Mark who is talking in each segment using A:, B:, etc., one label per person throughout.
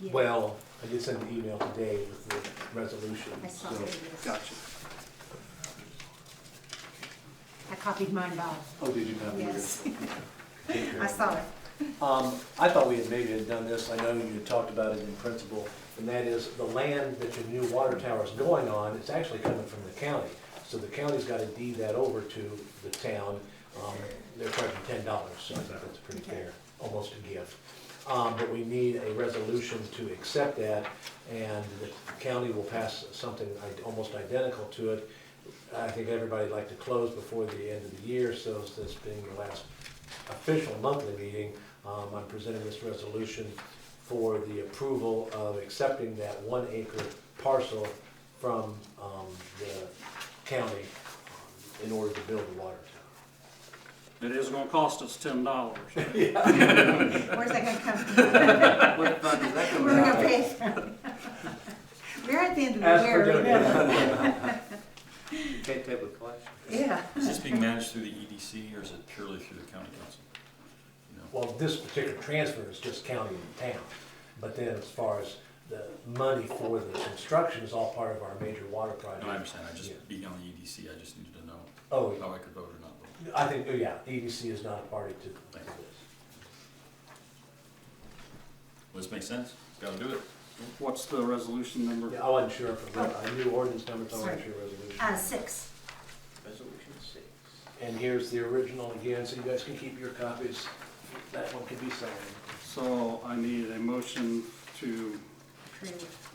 A: Yeah.
B: Well, I did send an email today with the resolution.
A: I saw
B: so-
A: it, yes.
C: Gotcha.
A: I copied mine, Bob.
C: Oh, did you have?
A: Yes.
B: Take care.
A: I saw it.
B: Um, I thought we had maybe had done this, I know you had talked about it in principle, and that is the land that your new water tower is going on, it's actually coming from the county. So the county's gotta deed that over to the town, um, they're charging ten dollars, so I think that's pretty fair, almost a gift. Um, but we need a resolution to accept that, and the county will pass something i- almost identical to it. I think everybody'd like to close before the end of the year, so this being the last official monthly meeting, um, I'm presenting this resolution for the approval of accepting that one acre parcel from, um, the county um, in order to build the water tower.
D: It is gonna cost us ten dollars.
A: Where's that gonna come from?
C: What fund is that
A: We're
C: coming out
A: gonna
C: of?
A: pay for it. We're at the end of
B: As
A: the
B: per
A: year. we know.
C: You Can't take with cash.
A: Yeah.
E: Is this being managed through the EDC or is it purely through the county council? You know,
B: Well, this particular transfer is just county and town, but then as far as the money for the construction is all part of our major water project.
E: No, I understand, I just,
B: Yeah.
E: being on the EDC, I just needed to know
B: Oh,
E: how I could vote or not vote.
B: I think, oh, yeah, EDC is not a party to to this.
E: Well, this makes sense, gotta do it.
D: What's the resolution number?
B: Yeah, I wasn't sure if, I knew ordinance number, so I wasn't
A: Sorry.
B: sure resolution.
A: Uh, six.
C: Resolution six.
B: And here's the original again, so you guys can keep your copies. That one can be signed.
D: So I need a motion to,
A: Approve.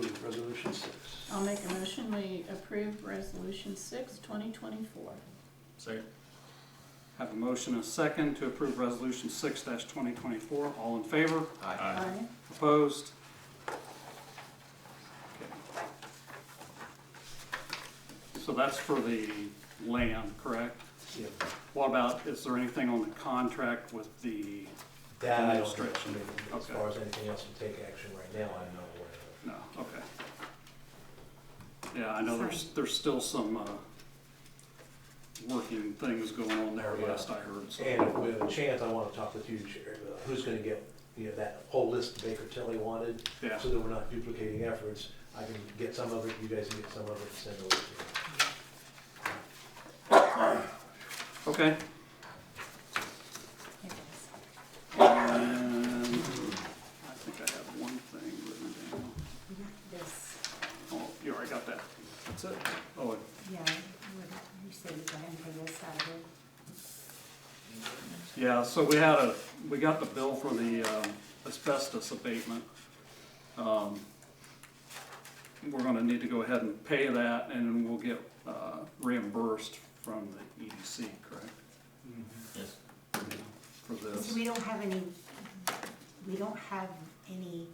B: Approve resolution six.
F: I'll make a motion, we approve resolution six, twenty twenty-four.
E: Second,
D: have a motion and a second to approve resolution six twenty twenty-four. All in favor?
E: aye.
F: Aye.
D: Opposed? So that's for the land, correct?
B: Yeah.
D: What about, is there anything on the contract with the,
B: That I don't,
D: Administration.
B: think- as
D: Okay.
B: far as anything else to take action right now, I'm not aware of.
D: no, okay. Yeah, I know there's, there's still some, uh, working things going on there
B: Yeah.
D: last I heard, so.
B: And if we have a chance, I wanna talk with you, Chair, uh, who's gonna get, you know, that whole list Baker Tilly wanted,
D: Yeah,
B: so that we're not duplicating efforts. I can get some of it, you guys can get some of it, and send over to me.
D: okay.
A: Here it
D: And I think I have one thing written down.
A: is. Not This,
D: Oh, you already got that. That's it. Oh, and
A: yeah, what- you said you got him for this side of it.
D: Yeah, so we had a, we got the bill for the um, asbestos abatement. Um, We're gonna need to go ahead and pay that, and then we'll get uh, reimbursed from the EDC, correct?
E: Yes.
D: For
A: So
D: this.
A: we don't have any, we don't have any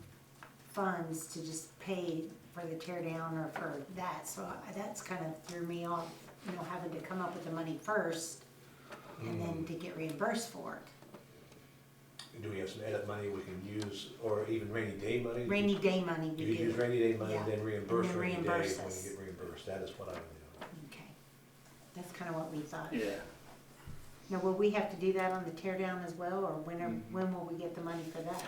A: funds to just pay for the tear down or for that, so I- that's kind of threw me off, you know, having to come up with the money first and
B: Mm.
A: then to get reimbursed for it.
B: Do we have some edit money we can use, or even rainy day money?
A: Rainy day money
B: Do
A: we
B: you use
A: do,
B: rainy day money,
A: Yeah.
B: then reimburse
A: And then
B: rainy day when you
A: reimburse us.
B: get reimbursed? That is what I would
A: okay. That's kind of what we thought.
D: Yeah,
A: Now, will we have to do that on the tear down as well, or when, are- when will we get the money for that?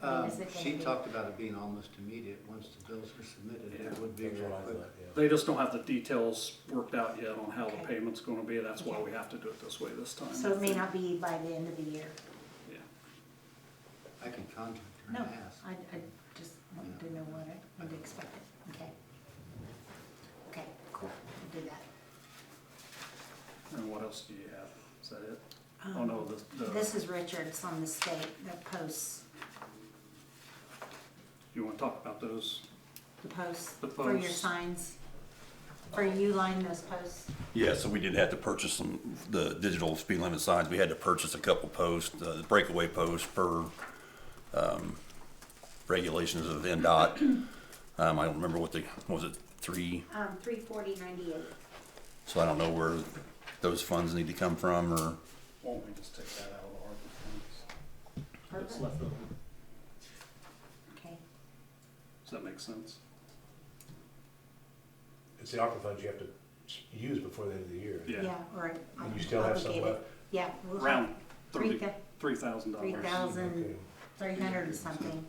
A: I mean,
G: Um,
A: is it gonna
G: She
A: be-
G: talked about it being almost immediate, once the bills were submitted, it would
B: do.
G: be real quick.
D: they just don't have the details worked out yet on how the
A: Okay.
D: payment's gonna be, that's why we have to do it this way this time.
A: So it may not be by the end of the year.
D: Yeah.
G: I can contact her
A: No,
G: and ask.
A: I, I just wanted to know what I
G: Mm.
A: would expect it, okay? Okay, cool, I'll do that.
D: And what else do you have? Is that it?
A: Um,
D: Oh, no,
G: Uh,
D: the, the,
A: This is Richards on the state, the posts,
D: you wanna talk about those?
A: the posts
D: The
A: for your
D: posts.
A: signs, for you line those posts.
H: Yeah, so we did have to purchase some, the digital speed limit signs, we had to purchase a couple posts, uh, breakaway posts per, um, regulations of NDOT. Um, I don't remember what the, was it three,
A: Um, three forty ninety-eight.
H: so I don't know where those funds need to come from, or,
D: Why don't we just take that out of the ARPA funds? That's
A: Okay,
D: left over. Does that make sense?
B: It's the ARPA funds you have to s- use before the end of the year.
D: Yeah.
A: yeah, all right.
B: And you still have some
A: Obligated.
B: left?
A: Yeah. we'll have
D: Round
A: Three
D: thirty, three thousand
A: three
D: dollars.
A: thousand,
B: Okay.
A: three hundred and something,